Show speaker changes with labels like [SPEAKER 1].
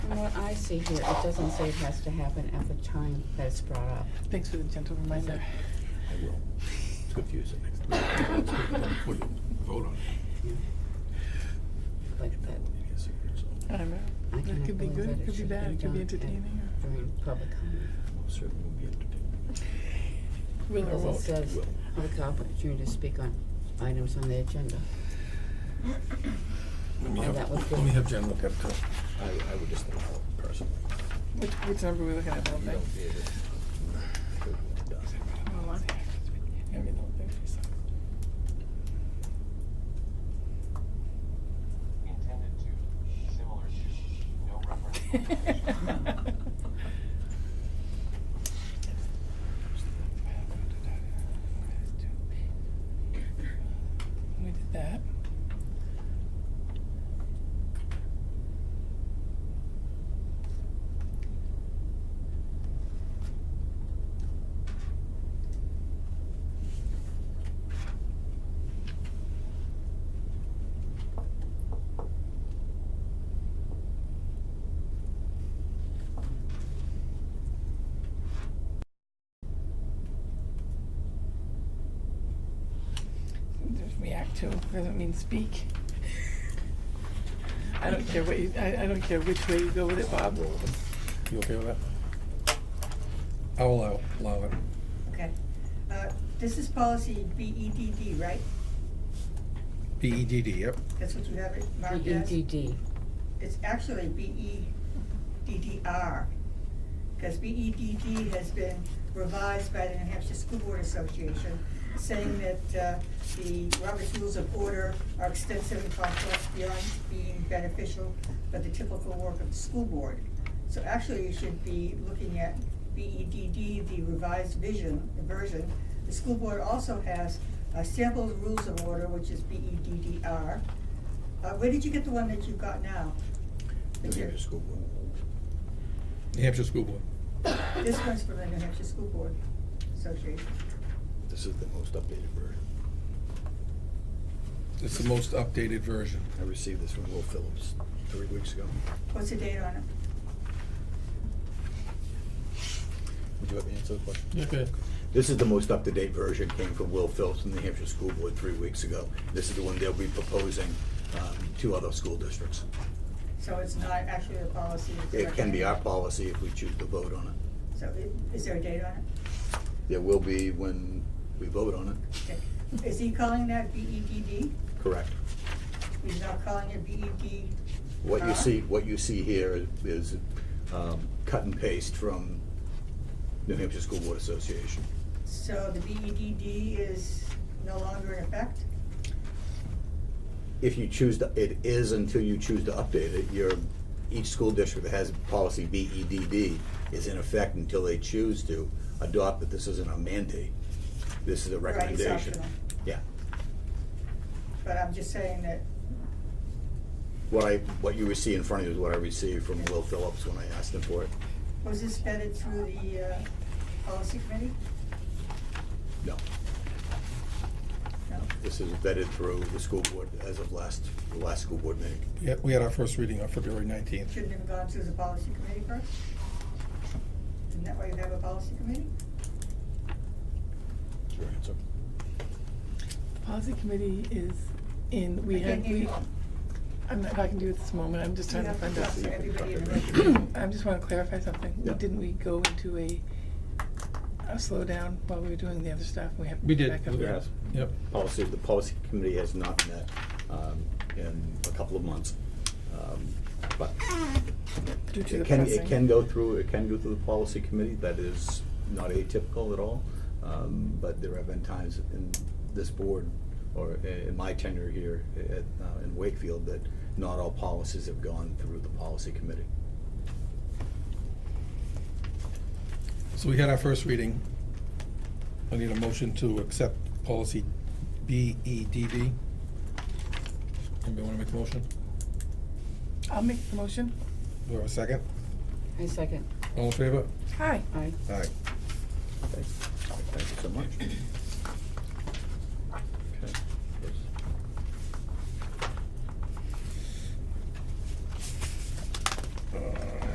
[SPEAKER 1] what I see here, it doesn't say it has to happen at the time that it's brought up.
[SPEAKER 2] Thanks for the gentle reminder.
[SPEAKER 3] I will. It's confusing. Let's put it- Vote on it.
[SPEAKER 1] Like that,
[SPEAKER 3] It is secret, so
[SPEAKER 2] I don't know.
[SPEAKER 1] I
[SPEAKER 2] It
[SPEAKER 1] cannot
[SPEAKER 2] could be
[SPEAKER 1] believe
[SPEAKER 2] good,
[SPEAKER 1] that
[SPEAKER 2] it could be
[SPEAKER 1] should
[SPEAKER 2] bad, it could be
[SPEAKER 1] done at-
[SPEAKER 2] entertaining.
[SPEAKER 1] During public comment.
[SPEAKER 3] we'll Certainly will be entertained.
[SPEAKER 2] Will or
[SPEAKER 1] Because it
[SPEAKER 2] won't.
[SPEAKER 1] says,
[SPEAKER 3] Will.
[SPEAKER 1] public opportunity to speak on items on the agenda.
[SPEAKER 3] Let
[SPEAKER 1] Oh, that was good.
[SPEAKER 3] have Jen look up to. I, I would just allow it personally.
[SPEAKER 2] Which, which number are we looking at, one
[SPEAKER 3] You
[SPEAKER 2] thing?
[SPEAKER 3] don't need it. It does.
[SPEAKER 2] Hold on. I mean, the whole thing, she's like-
[SPEAKER 4] intended to, similar to, no reference.
[SPEAKER 2] We did that. There's react to, doesn't mean speak. I don't care what you, I, I don't care which way you go with it, Bob.
[SPEAKER 5] You okay with that? I'll allow, allow it.
[SPEAKER 6] Okay. Uh, This is policy BEDD, right?
[SPEAKER 3] E
[SPEAKER 5] BEDD, yep.
[SPEAKER 6] That's what you have it marked
[SPEAKER 1] E
[SPEAKER 6] as?
[SPEAKER 1] EDD,
[SPEAKER 6] It's actually E BEDDR, because BEDD E has been revised by the New Hampshire School Board Association, saying that uh, the Robert's Rules of Order are extensive and complex beyond being beneficial for the typical work of the school board. So actually, you should be looking at BEDD, the revised vision, the version. The school board also has uh, sample rules of order, which is E BEDDR. Uh, where did you get the one that you got now?
[SPEAKER 3] New Hampshire School Board.
[SPEAKER 5] New Hampshire School Board.
[SPEAKER 6] This one's from the New Hampshire School Board Association.
[SPEAKER 3] This is the most updated version.
[SPEAKER 5] It's the most updated version.
[SPEAKER 3] I received this from Will Phillips three weeks ago.
[SPEAKER 6] What's the date on it?
[SPEAKER 3] Would you let me answer the question?
[SPEAKER 5] Okay.
[SPEAKER 3] This is the most up-to-date version, came from Will Phillips from the Hampshire School Board three weeks ago. This is the one they'll be proposing um, to other school districts.
[SPEAKER 6] So it's not actually a policy. it's
[SPEAKER 3] It can be our
[SPEAKER 6] recommended.
[SPEAKER 3] policy if we choose to vote on it.
[SPEAKER 6] So i- is there a date on it?
[SPEAKER 3] There will be when we vote on it,
[SPEAKER 6] Okay. Is he calling that BEDD?
[SPEAKER 3] correct?
[SPEAKER 6] He's not calling it E BED?
[SPEAKER 3] What you see, what you see here is um, cut and paste from New Hampshire School Board Association.
[SPEAKER 6] So the BEDD is no longer in effect?
[SPEAKER 3] If you choose to, it is until you choose to update it. Your, each school district that has policy BEDD is in effect until they choose to adopt it. This isn't a mandate. This is a
[SPEAKER 6] Right, it's
[SPEAKER 3] recommendation.
[SPEAKER 6] optional.
[SPEAKER 3] Yeah.
[SPEAKER 6] But I'm just saying that,
[SPEAKER 3] What I, what you see in front of you is what I received from Will Phillips when I asked him for it.
[SPEAKER 6] was this vetted through the uh, policy committee?
[SPEAKER 3] No,
[SPEAKER 6] No?
[SPEAKER 3] this is vetted through the school board as of last, the last school board meeting.
[SPEAKER 5] Yeah, we had our first reading on February nineteenth.
[SPEAKER 6] Shouldn't it have gone through the policy committee first? Isn't that why you have a policy committee?
[SPEAKER 3] Is your answer?
[SPEAKER 2] Policy committee is in, we
[SPEAKER 6] I
[SPEAKER 2] have,
[SPEAKER 6] can't hear
[SPEAKER 2] we,
[SPEAKER 6] you.
[SPEAKER 2] I'm not, if I can do it this moment, I'm just
[SPEAKER 6] You
[SPEAKER 2] trying to
[SPEAKER 6] have
[SPEAKER 2] find
[SPEAKER 6] to
[SPEAKER 2] out.
[SPEAKER 6] talk to everybody in the room.
[SPEAKER 2] I just wanna clarify something.
[SPEAKER 3] Yeah.
[SPEAKER 2] Didn't we go into a, a slowdown while we were doing the other stuff? We have to
[SPEAKER 5] We
[SPEAKER 2] pick
[SPEAKER 5] did.
[SPEAKER 2] back up.
[SPEAKER 3] Yes.
[SPEAKER 5] Yep.
[SPEAKER 3] Policy, the policy committee has not met um, in a couple of months. Um, But
[SPEAKER 2] Due to the
[SPEAKER 3] it can,
[SPEAKER 2] pressing.
[SPEAKER 3] it can go through, it can go through the policy committee, that is not atypical at all. Um, But there have been times in this board, or i- in my tenure here at, uh, in Wakefield, that not all policies have gone through the policy committee.
[SPEAKER 5] So we had our first reading. I need a motion to accept policy BEDD. Anybody wanna make a motion?
[SPEAKER 2] I'll make the motion.
[SPEAKER 5] Do I have a second?
[SPEAKER 1] I second,
[SPEAKER 5] All in favor?
[SPEAKER 2] Hi.
[SPEAKER 1] I,
[SPEAKER 5] Aye.
[SPEAKER 3] Okay. Thank you so much.
[SPEAKER 5] Uh,